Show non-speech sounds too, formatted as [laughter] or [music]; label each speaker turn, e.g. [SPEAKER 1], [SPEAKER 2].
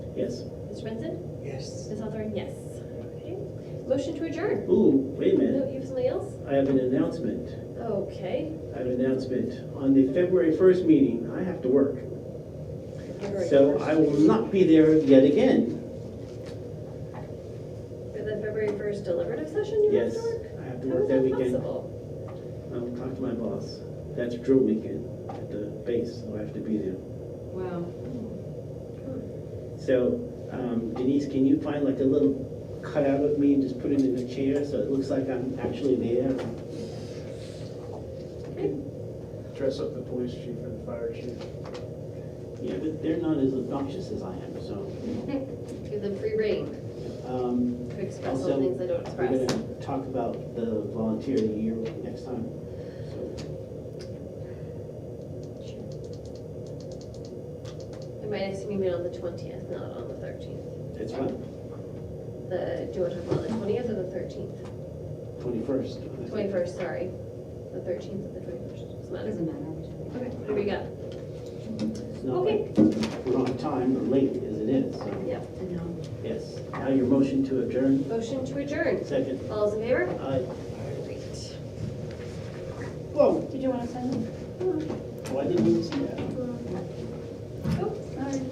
[SPEAKER 1] Yes.
[SPEAKER 2] Ms. Swenson?
[SPEAKER 3] Yes.
[SPEAKER 2] Ms. Hawthorne, yes. Okay. Motion to adjourn.
[SPEAKER 1] Ooh, wait a minute.
[SPEAKER 2] No, you have something else?
[SPEAKER 1] I have an announcement.
[SPEAKER 2] Okay.
[SPEAKER 1] I have an announcement. On the February 1st meeting, I have to work. So I will not be there yet again.
[SPEAKER 2] For the February first deliberative session, you
[SPEAKER 1] Yes,
[SPEAKER 2] have to work?
[SPEAKER 1] I have to
[SPEAKER 2] How
[SPEAKER 1] work
[SPEAKER 2] is
[SPEAKER 1] that
[SPEAKER 2] that
[SPEAKER 1] weekend.
[SPEAKER 2] possible?
[SPEAKER 1] I'll talk to my boss. That's drill weekend at the base, so I have to be there.
[SPEAKER 3] Wow.
[SPEAKER 1] So um, Denise, can you find like a little cutout of me and just put it in a chair so it looks like I'm actually there?
[SPEAKER 2] Okay. [laughs]
[SPEAKER 4] Dress up the police chief and the fire chief.
[SPEAKER 1] Yeah, but they're not as obnoxious as I am, so.
[SPEAKER 2] Give them free rein
[SPEAKER 1] um,
[SPEAKER 2] to express all
[SPEAKER 1] Also,
[SPEAKER 2] the things they don't
[SPEAKER 1] We're
[SPEAKER 2] express.
[SPEAKER 1] gonna talk about the volunteer of the year next time. So,
[SPEAKER 2] We might have seen meet on the twentieth, not on the thirteenth.
[SPEAKER 1] That's fine,
[SPEAKER 2] The, do you want to talk about the twentieth or the thirteenth?
[SPEAKER 1] twenty-first.
[SPEAKER 2] Twenty-first, sorry. The thirteenth or the twenty-first, doesn't matter.
[SPEAKER 3] Doesn't matter.
[SPEAKER 2] Okay, what do we got?
[SPEAKER 1] It's not like we're on time or late as it is, so,
[SPEAKER 2] Yeah,
[SPEAKER 3] I know.
[SPEAKER 1] yes. Now your motion to adjourn,
[SPEAKER 2] motion to adjourn.
[SPEAKER 1] second.
[SPEAKER 2] All those in favor?
[SPEAKER 1] Aye.
[SPEAKER 2] Great.
[SPEAKER 1] Whoa,
[SPEAKER 3] Did you want to send them?
[SPEAKER 1] why didn't you see that?
[SPEAKER 2] Oh,